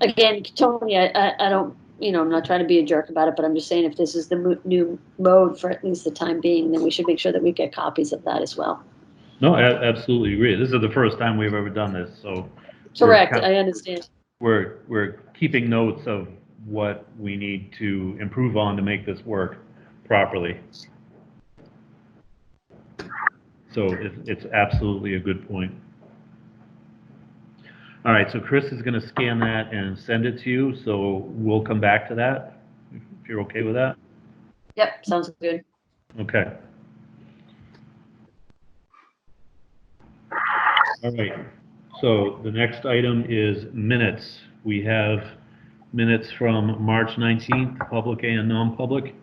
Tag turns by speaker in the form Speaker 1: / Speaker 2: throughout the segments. Speaker 1: again, Tony, I, I, I don't, you know, I'm not trying to be a jerk about it, but I'm just saying if this is the mo- new mode for at least the time being, then we should make sure that we get copies of that as well.
Speaker 2: No, I absolutely agree. This is the first time we've ever done this, so Sure.
Speaker 1: Correct, I understand.
Speaker 2: we're, we're keeping notes of what we need to improve on to make this work properly. So it's, it's absolutely a good point. All right, so Chris is gonna scan that and send it to you, so we'll come back to that, if you're okay with that?
Speaker 1: Yep, sounds good.
Speaker 2: Okay. All right, so the next item is minutes. We have minutes from March 19th, public and non-public.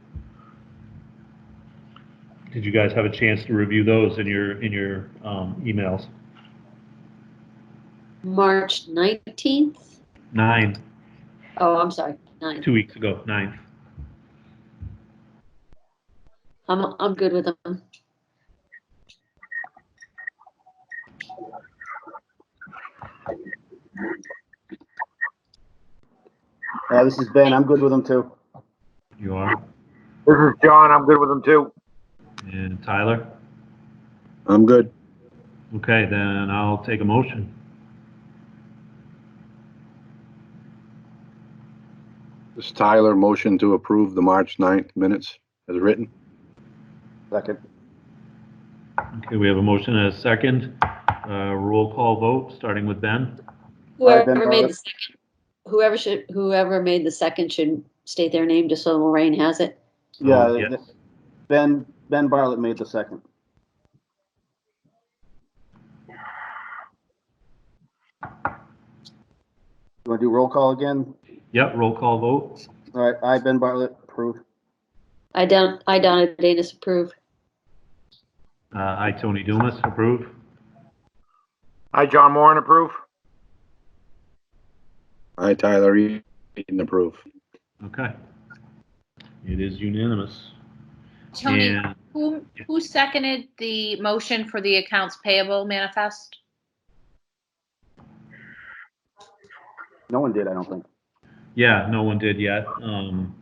Speaker 2: Did you guys have a chance to review those in your, in your um, emails?
Speaker 1: March 19th?
Speaker 2: Nine,
Speaker 1: Oh, I'm sorry, 9.
Speaker 2: two weeks ago, nine.
Speaker 1: I'm, I'm good with them.
Speaker 3: Yeah, this is Ben. I'm good with them too.
Speaker 2: You are?
Speaker 4: This is John. I'm good with them too.
Speaker 2: And Tyler?
Speaker 3: I'm good.
Speaker 2: Okay, then I'll take a motion.
Speaker 5: This is Tyler, motion to approve the March 9th minutes as written.
Speaker 3: Second.
Speaker 2: Okay, we have a motion and a second. Uh, Roll call vote, starting with Ben.
Speaker 3: Alright, Ben
Speaker 1: Whoever made the
Speaker 3: Barber.
Speaker 1: second, whoever should, whoever made the second should state their name just so Lorraine has it.
Speaker 3: Yeah,
Speaker 2: Oh,
Speaker 3: th-
Speaker 2: yes.
Speaker 3: Ben, Ben Bartlett made the second. You want to do roll call again?
Speaker 2: Yep, roll call vote.
Speaker 3: All right, I, Ben Bartlett, approve.
Speaker 1: I don't, I don't, Dana approve.
Speaker 2: Uh, I, Tony Dumas, approve.
Speaker 4: Hi, John Moran, approve.
Speaker 5: I, Tyler Eaton, approve.
Speaker 2: Okay. It is unanimous.
Speaker 6: Tony,
Speaker 2: And
Speaker 6: who, who seconded the motion for the accounts payable manifest?
Speaker 3: No one did, I don't think.
Speaker 2: yeah, no one did yet. Um,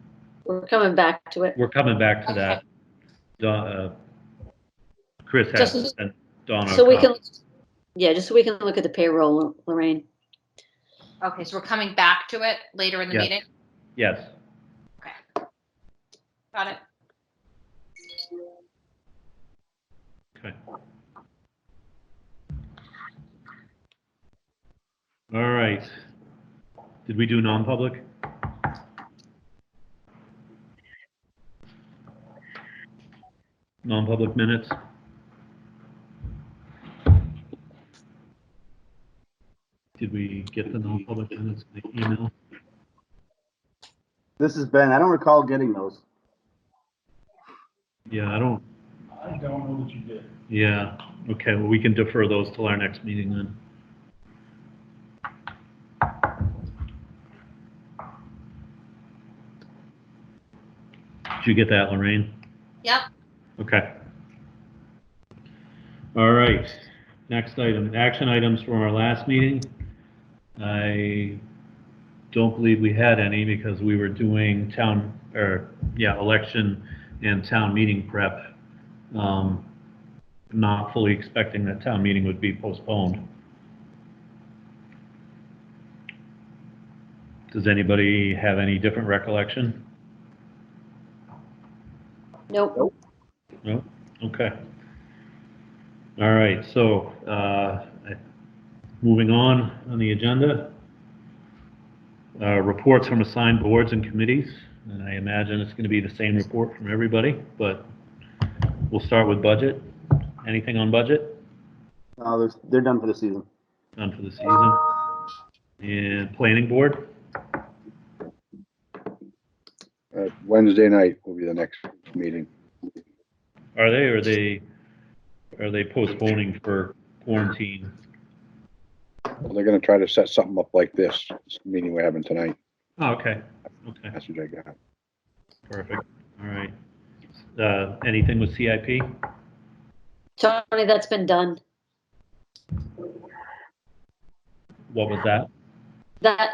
Speaker 1: We're coming back to it.
Speaker 2: We're coming back to that. Don- uh, Chris has to
Speaker 1: Just-
Speaker 2: send Donna. a
Speaker 1: So we can,
Speaker 2: copy.
Speaker 1: yeah, just so we can look at the payroll, Lorraine.
Speaker 6: Okay, so we're coming back to it later in the
Speaker 2: Yeah.
Speaker 6: meeting?
Speaker 2: Yes.
Speaker 6: Got it?
Speaker 2: Okay. All right. Did we do non-public? Non-public minutes? Did we get the non-public minutes in the email?
Speaker 3: This is Ben. I don't recall getting those.
Speaker 2: Yeah, I don't. I don't know that you did. Yeah, okay, well, we can defer those till our next meeting then. Did you get that, Lorraine?
Speaker 6: Yep.
Speaker 2: Okay. All right, next item, action items from our last meeting. I don't believe we had any because we were doing town, or, yeah, election and town meeting prep. Um, Not fully expecting that town meeting would be postponed. Does anybody have any different recollection?
Speaker 1: Nope.
Speaker 2: No? Okay. All right, so, uh, I- moving on on the agenda. Uh, reports from assigned boards and committees, and I imagine it's gonna be the same report from everybody, but we'll start with budget. Anything on budget?
Speaker 3: Uh, there's, they're done for the season.
Speaker 2: None for the season. And planning board?
Speaker 5: Uh, Wednesday night will be the next meeting.
Speaker 2: Are they, are they, are they postponing for quarantine?
Speaker 5: They're gonna try to set something up like this, this meeting we're having tonight.
Speaker 2: Oh, okay, okay.
Speaker 5: That's what I got.
Speaker 2: Perfect, all right. Uh, Anything with CIP?
Speaker 1: Tony, that's been done.
Speaker 2: What was that?
Speaker 1: That,